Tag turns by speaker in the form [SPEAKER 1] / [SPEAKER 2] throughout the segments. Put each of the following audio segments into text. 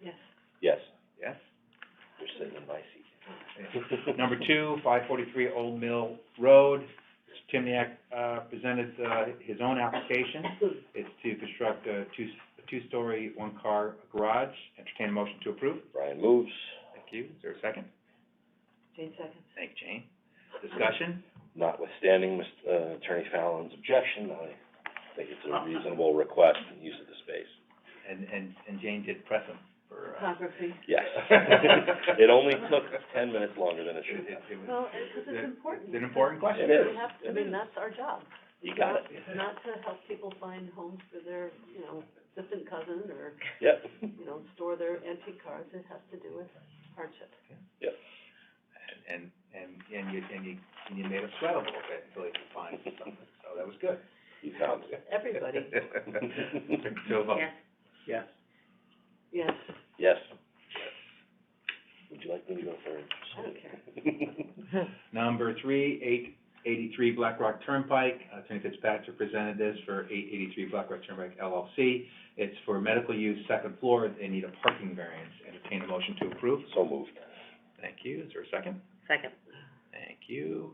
[SPEAKER 1] Yes.
[SPEAKER 2] Yes,
[SPEAKER 3] Yes.
[SPEAKER 2] you're sitting in my seat.
[SPEAKER 3] Number two, five forty-three Old Mill Road. Mr. Timniak, uh, presented, uh, his own application. It's to construct a two, a two-story, one-car garage. Entertain a motion to approve.
[SPEAKER 2] Brian moves.
[SPEAKER 3] Thank you. Is there a second?
[SPEAKER 1] Jane seconds.
[SPEAKER 3] Thank you, Jane. Discussion?
[SPEAKER 2] Notwithstanding Mr. uh, Attorney Fallon's objection, I think it's a reasonable request and use of the space.
[SPEAKER 3] And, and, and Jane did press him for, uh,
[SPEAKER 1] Photography.
[SPEAKER 2] Yes. It only took ten minutes longer than it
[SPEAKER 3] it,
[SPEAKER 2] should
[SPEAKER 3] it,
[SPEAKER 2] have.
[SPEAKER 3] it was,
[SPEAKER 1] Well, because it's important.
[SPEAKER 3] it's an important question.
[SPEAKER 2] It is.
[SPEAKER 1] We have, I mean, that's our job.
[SPEAKER 2] You got it.
[SPEAKER 1] Not to help people find homes for their, you know, distant cousin or,
[SPEAKER 2] Yep.
[SPEAKER 1] you know, store their antique cars. It has to do with hardship.
[SPEAKER 3] And, and, and you, and you, and you made us sweat a little bit until you could find something, so that was good.
[SPEAKER 2] You found it.
[SPEAKER 1] Everybody.
[SPEAKER 3] So, uh,
[SPEAKER 1] Yes. Yes,
[SPEAKER 2] Yes. Would you like me to go third?
[SPEAKER 1] I don't care.
[SPEAKER 3] Number three, eight eighty-three Black Rock Turnpike, Attorney Fitzpatrick presented this for eight eighty-three Black Rock Turnpike LLC. It's for medical use, second floor, they need a parking variance, entertain a motion to approve.
[SPEAKER 2] So moved.
[SPEAKER 3] Thank you, is there a second?
[SPEAKER 1] Second.
[SPEAKER 3] Thank you.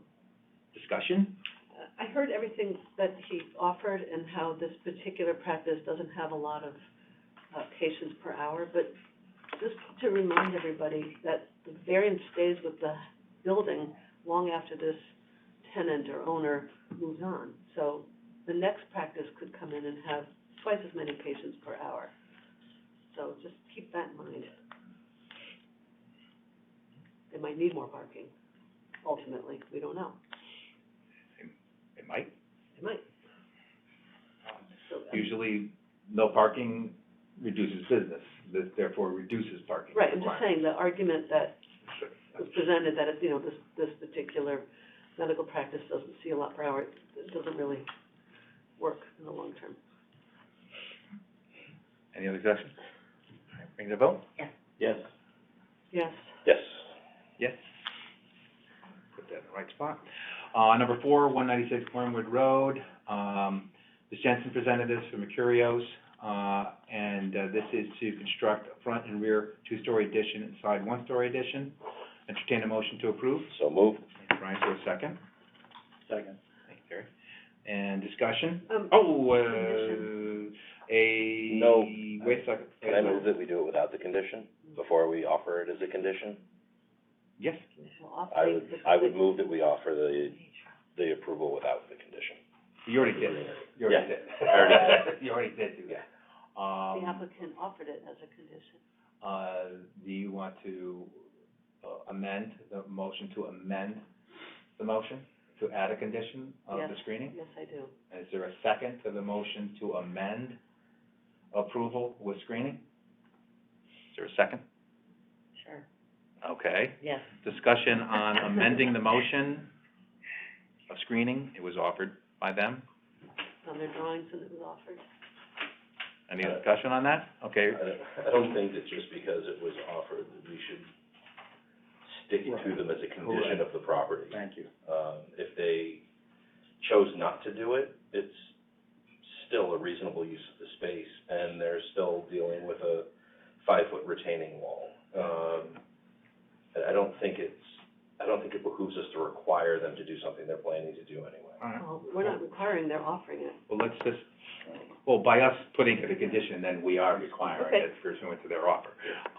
[SPEAKER 3] Discussion?
[SPEAKER 1] I heard everything that he offered and how this particular practice doesn't have a lot of, uh, patients per hour, but just to remind everybody that the variance stays with the building long after this tenant or owner moves on. So the next practice could come in and have twice as many patients per hour. So just keep that in mind. They might need more parking, ultimately, we don't know,
[SPEAKER 3] It might,
[SPEAKER 1] they might. So, I mean,
[SPEAKER 3] usually no parking reduces business, th- therefore reduces parking.
[SPEAKER 1] uh, Right, I'm just
[SPEAKER 3] requirements.
[SPEAKER 1] saying, the argument that was presented, that, it- you know, this, this particular medical practice doesn't see a lot per hour, it doesn't really work in the long term.
[SPEAKER 3] Any other discussion? All right, Bring the vote?
[SPEAKER 2] Yes.
[SPEAKER 1] Yes,
[SPEAKER 2] Yes.
[SPEAKER 3] Yes. Put that in the right spot. Uh, number four, one ninety-six Glenwood Road, um, Ms. Jensen presented this for Mercurios, uh, and, uh, this is to construct a front and rear two-story addition and side one-story addition. Entertain a motion to approve.
[SPEAKER 2] So moved.
[SPEAKER 3] Brian, for a second.
[SPEAKER 2] Second.
[SPEAKER 3] Thank you, Terry. And discussion?
[SPEAKER 1] um,
[SPEAKER 3] Oh, uh,
[SPEAKER 1] Condition.
[SPEAKER 3] a.
[SPEAKER 2] No.
[SPEAKER 3] Wait a second.
[SPEAKER 2] Can I move that we do it without the condition, before we offer it as a condition?
[SPEAKER 3] Yes,
[SPEAKER 1] well, off
[SPEAKER 2] I
[SPEAKER 1] the-
[SPEAKER 2] would,
[SPEAKER 1] the-
[SPEAKER 2] I would move that we offer the, the approval without the condition.
[SPEAKER 3] you already did. You
[SPEAKER 2] Yeah,
[SPEAKER 3] already did.
[SPEAKER 2] I already
[SPEAKER 3] You already did do that.
[SPEAKER 1] The
[SPEAKER 3] Um,
[SPEAKER 1] applicant offered it as a condition,
[SPEAKER 3] Uh, do you want to uh, amend, the motion to amend the motion to add a condition of the
[SPEAKER 1] Yes.
[SPEAKER 3] screening?
[SPEAKER 1] yes, I do,
[SPEAKER 3] Is there a second to the motion to amend approval with screening? Is there a second?
[SPEAKER 1] sure,
[SPEAKER 3] Okay.
[SPEAKER 1] yes.
[SPEAKER 3] Discussion on amending the motion of screening, it was offered by them.
[SPEAKER 1] On their drawings and it was offered,
[SPEAKER 3] Any
[SPEAKER 2] Uh,
[SPEAKER 3] discussion on that? Okay,
[SPEAKER 2] I don't, I don't think that just because it was offered, that we should stick to them as a condition of the property. Thank you. Um, if they chose not to do it, it's still a reasonable use of the space, and they're still dealing with a five-foot retaining wall. Um, and I don't think it's, I don't think it behooves us to require them to do something they're planning to do anyway.
[SPEAKER 3] all right.
[SPEAKER 1] well, we're not requiring, they're offering it,
[SPEAKER 3] Well, let's just, well, by us putting it a condition, then we are requiring
[SPEAKER 1] Okay.
[SPEAKER 3] it pursuant to their offer.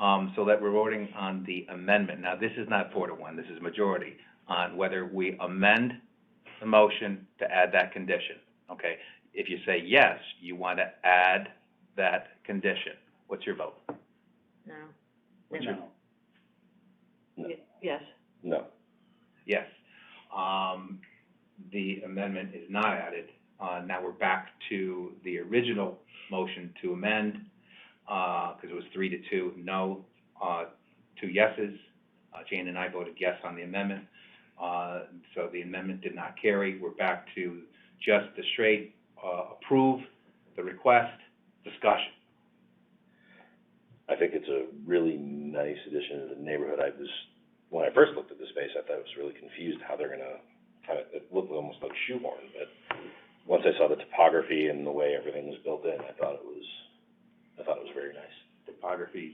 [SPEAKER 3] Um, so that we're voting on the amendment. Now, this is not four to one, this is majority, on whether we amend the motion to add that condition, okay? If you say yes, you want to add that condition. What's your vote? What's your-
[SPEAKER 2] No.
[SPEAKER 1] Ye- yes,
[SPEAKER 2] No.
[SPEAKER 3] Yes. Um, the amendment is not added. Uh, now we're back to the original motion to amend, uh, because it was three to two, no, uh, two yeses. Uh, Jane and I voted yes on the amendment, uh, so the amendment did not carry. We're back to just the straight, uh, approve the request, discussion.
[SPEAKER 2] I think it's a really nice addition to the neighborhood. I was, when I first looked at the space, I thought I was really confused how they're gonna, how it, it looked almost like shoehorn, but once I saw the topography and the way everything was built in, I thought it was, I thought it was very nice.
[SPEAKER 3] Topography